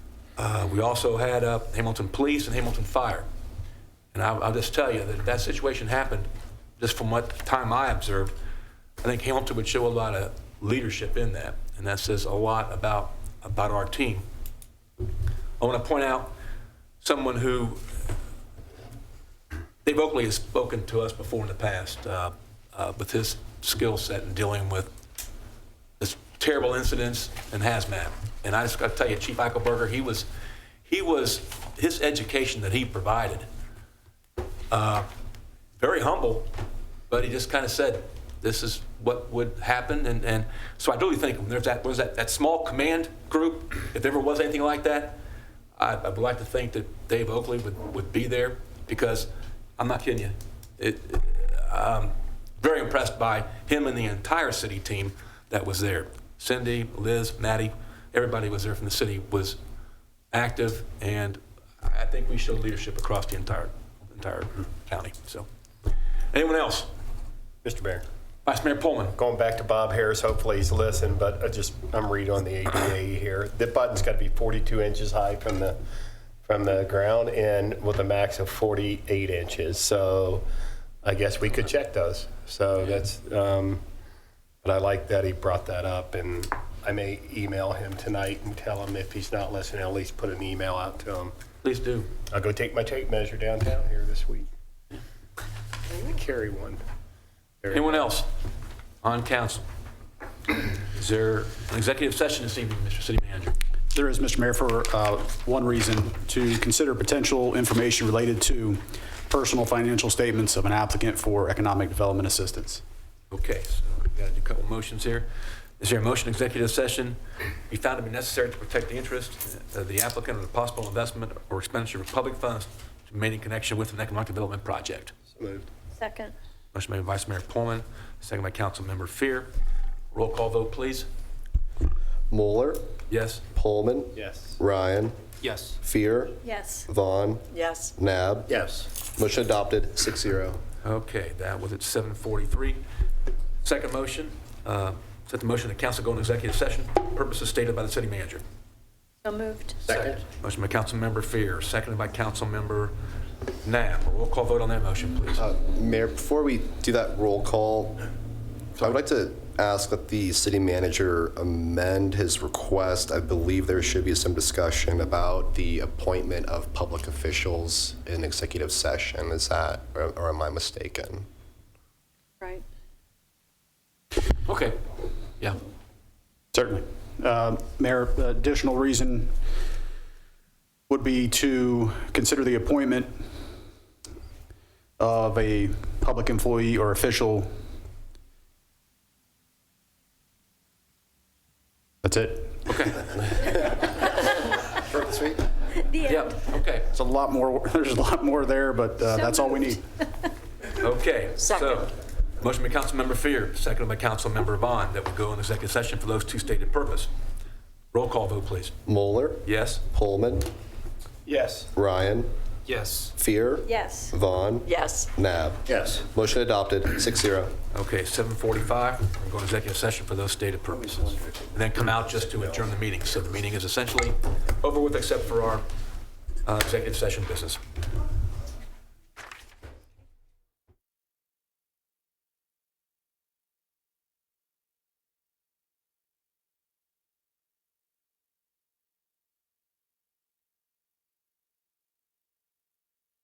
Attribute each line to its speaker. Speaker 1: Uh, We also had uh, Hamilton Police and Hamilton Fire. And I'll, I'll just tell you that if that situation happened, just from what time I observed, I think Hamilton would show a lot of leadership in that, and that says a lot about, about our team. I want to point out someone who Dave Oakley has spoken to us before in the past uh, uh, with his skill set in dealing with this terrible incidents and hazmat. And I just got to tell you, Chief Eichelberger, he was, he was, his education that he provided, uh, very humble, but he just kind of said, this is what would happen. And, and so I really think when there's that, was that, that small command group, if there ever was anything like that, I, I would like to think that Dave Oakley would, would be there because I'm not kidding you. It, um, very impressed by him and the entire city team that was there. Cindy, Liz, Maddie, everybody was there from the city was active, and I think we showed leadership across the entire entire county. So, anyone else?
Speaker 2: Mr. Mayor,
Speaker 1: Vice Mayor Pullman.
Speaker 2: going back to Bob Harris, hopefully he's listening, but I just, I'm reading on the ADA E here. The button's got to be 42 inches high from the, from the ground and with a max of 48 inches. So I guess we could check those. So that's, um, but I like that he brought that up and I may email him tonight and tell him if he's not listening, at least put an email out to him.
Speaker 1: Please do.
Speaker 2: I'll go take my tape measure downtown here this week. I'm going to carry one. Very
Speaker 1: Anyone else on council? Is there an executive session this evening, Mr. City Manager?
Speaker 3: There is, Mr. Mayor, for uh, one reason, to consider potential information related to personal financial statements of an applicant for economic development assistance.
Speaker 1: Okay, so we've got to do a couple motions here. Is there a motion executive session be found to be necessary to protect the interest of the applicant or the possible investment or expenditure of public funds to maintain connection with an economic development project?
Speaker 2: moved.
Speaker 4: Second.
Speaker 1: Motion made by Vice Mayor Pullman, second by Councilmember Fear. Roll call vote, please.
Speaker 5: Moeller,
Speaker 1: Yes?
Speaker 5: Pullman,
Speaker 2: Yes.
Speaker 5: Ryan,
Speaker 1: Yes.
Speaker 5: Fear,
Speaker 4: Yes.
Speaker 5: Vaughn,
Speaker 4: Yes.
Speaker 5: Nab.
Speaker 2: Yes.
Speaker 5: Motion adopted, six zero.
Speaker 1: Okay, that was at 7:43. Second motion, uh, set the motion that council go into executive session, purposes stated by the city manager.
Speaker 4: So moved.
Speaker 2: Second.
Speaker 1: Motion by Councilmember Fear, seconded by Councilmember Knapp. Roll call vote on that motion, please.
Speaker 5: Uh, Mayor, before we do that roll call, I would like to ask that the city manager amend his request. I believe there should be some discussion about the appointment of public officials in executive session. Is that, or or am I mistaken?
Speaker 4: Right.
Speaker 1: Okay, yeah.
Speaker 3: Certainly. Um, Mayor, additional reason would be to consider the appointment of a public employee or official. That's it.
Speaker 1: Okay,
Speaker 5: Short and sweet.
Speaker 4: The
Speaker 1: yeah,
Speaker 4: end.
Speaker 1: okay,
Speaker 3: There's a lot more, there's a lot more there, but uh,
Speaker 4: So
Speaker 3: that's all we
Speaker 4: moved.
Speaker 3: need.
Speaker 1: okay. So,
Speaker 4: Second.
Speaker 1: Motion by Councilmember Fear, seconded by Councilmember Vaughn, that we go into executive session for those two stated purpose. Roll call vote, please.
Speaker 5: Moeller,
Speaker 1: Yes?
Speaker 5: Pullman,
Speaker 2: Yes.
Speaker 5: Ryan,
Speaker 1: Yes.
Speaker 5: Fear,
Speaker 4: Yes.
Speaker 5: Vaughn,
Speaker 4: Yes.
Speaker 5: Nab.
Speaker 2: Yes.
Speaker 5: Motion adopted, six zero.
Speaker 1: Okay, 7:45, we're going to executive session for those stated purposes. And then come out just to adjourn the meeting. So the meeting is essentially over with except for our uh, executive session business.